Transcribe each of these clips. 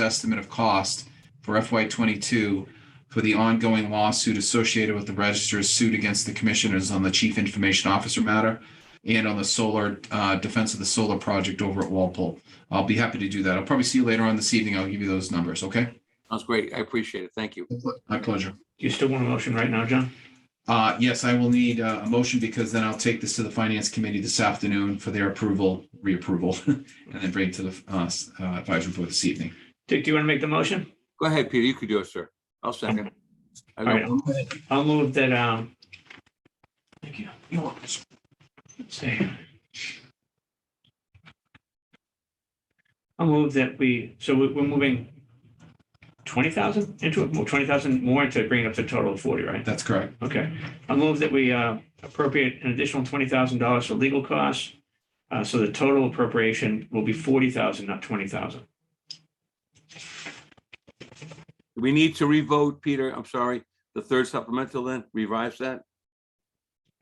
estimate of cost for FY twenty-two for the ongoing lawsuit associated with the registrar's suit against the commissioners on the chief information officer matter and on the solar, uh, defense of the solar project over at Walpole. I'll be happy to do that. I'll probably see you later on this evening. I'll give you those numbers, okay? That's great. I appreciate it. Thank you. My pleasure. Do you still want a motion right now, John? Uh, yes, I will need uh, a motion because then I'll take this to the finance committee this afternoon for their approval, reapproval, and then bring it to the, uh, s- uh, advisory board this evening. Dick, do you want to make the motion? Go ahead, Peter. You could do it, sir. I'll second. I All right, don't- I'll- I'll move that, um, thank you. Let's see. I'll move that we, so we- we're moving twenty thousand into, twenty thousand more to bring it up to a total of forty, right? That's correct. Okay, I'll move that we uh, appropriate an additional twenty thousand dollars for legal costs. Uh, So the total appropriation will be forty thousand, not twenty thousand. Do We need to revote, Peter. I'm sorry. The third supplemental then, revise that.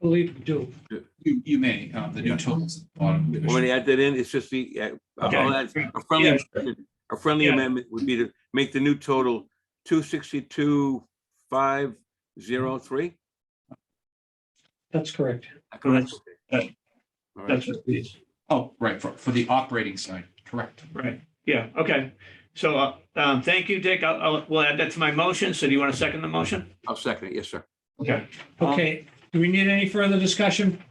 Believe you do. You, you may, uh, the new totals. at the bottom. Want me to add that in? It's just the, uh, I'll add a Yeah, friendly, sure. a friendly Yeah. amendment would be to make the new total two sixty-two, five, zero, three. That's correct. Correct. uh, All right. That's what it is. Oh, right, for, for the operating side, correct. Right, yeah, okay. So uh, um, thank you, Dick. I'll, I'll- we'll add that to my motion. So do you want to second the motion? I'll second it. Yes, sir. Okay, do we need any further discussion?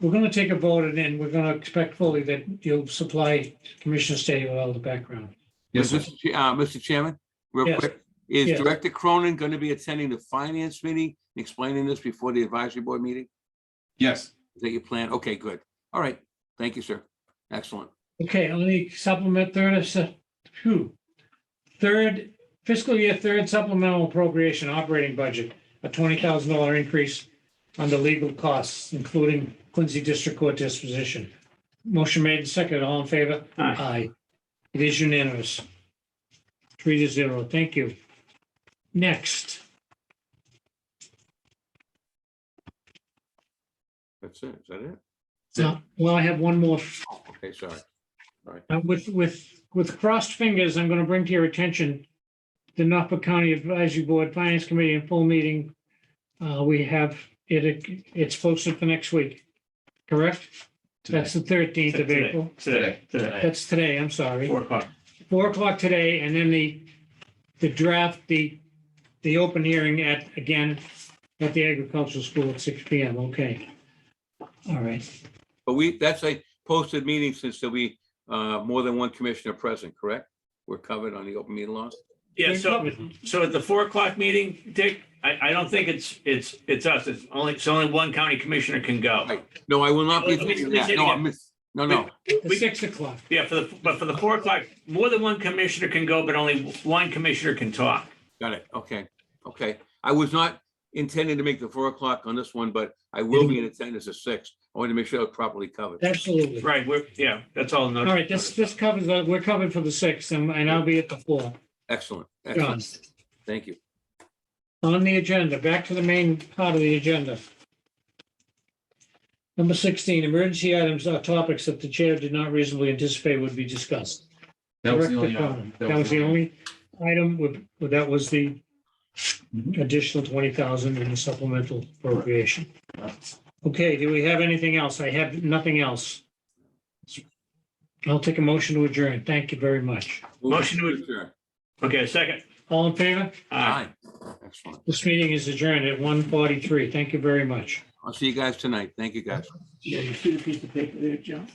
We're going to take a vote and then we're going to expect fully that you'll supply Commissioner Stady with all the background. Yes, sir. Mr. Ch- uh, Mr. Chairman, real Yes. quick, is Yes. Director Cronin going to be attending the finance meeting, and explaining this before the advisory board meeting? yes. Is that your plan? Okay, good. All right. Thank you, sir. Excellent. Okay, let me supplement third, uh, su- phew. Third fiscal year third supplemental appropriation operating budget, a twenty thousand dollar increase under legal costs, including Quincy District Court disposition. Motion made and seconded. All in favor? Aye. Aye. It is unanimous. Three to zero. Thank you. Next, That's it. Is that it? Uh, well, I have one more. Oh, Okay, sorry. Uh, With, with, with crossed fingers, I'm going to bring to your attention the Norfolk County Advisory Board Finance Committee in full meeting. Uh, We have it, it's posted for next week, correct? Today. That's the 13th of Today. April. Today, today, That's today, I'm sorry. four o'clock. four o'clock today, and then the, the draft, the, the open hearing at, again, at the agricultural school at six P M, okay. All right, But we, that's a posted meeting since there'll be uh, more than one commissioner present, correct? We're covered on the open meeting laws. Yeah, so, so at the four o'clock meeting, Dick, I, I don't think it's, it's, it's us. It's only, it's only one county commissioner can go. Right. No, I will not be Let me- attending let me that. say it No, again. I miss, no, no. the We- six o'clock, Yeah, for the, but for the four o'clock, more than one commissioner can go, but only one commissioner can talk. Got it. Okay, okay. I was not intending to make the four o'clock on this one, but I will be in attendance at six. I want to make sure it's properly covered. absolutely. Right, we're, yeah, that's all. All right, this, this covers, the- we're covered for the six, and, and I'll be at the four. Excellent, John, excellent. Thank you. on the agenda, back to the main part of the agenda. Number sixteen, emergency items are topics that the chair did not reasonably anticipate would be discussed. That was the Director only. Cronin. uh, That was the only item with, with- that was the Mhm. additional twenty thousand in the supplemental appropriation. Okay, do we have anything else? I have nothing else. I'll take a motion to adjourn. Thank you very much. Motion to adjourn. Okay, second. Uh, All in favor? Aye. Aye. Excellent. This meeting is adjourned at one forty-three. Thank you very much. I'll see you guys tonight. Thank you, guys. Yeah, you see the piece of paper there, John?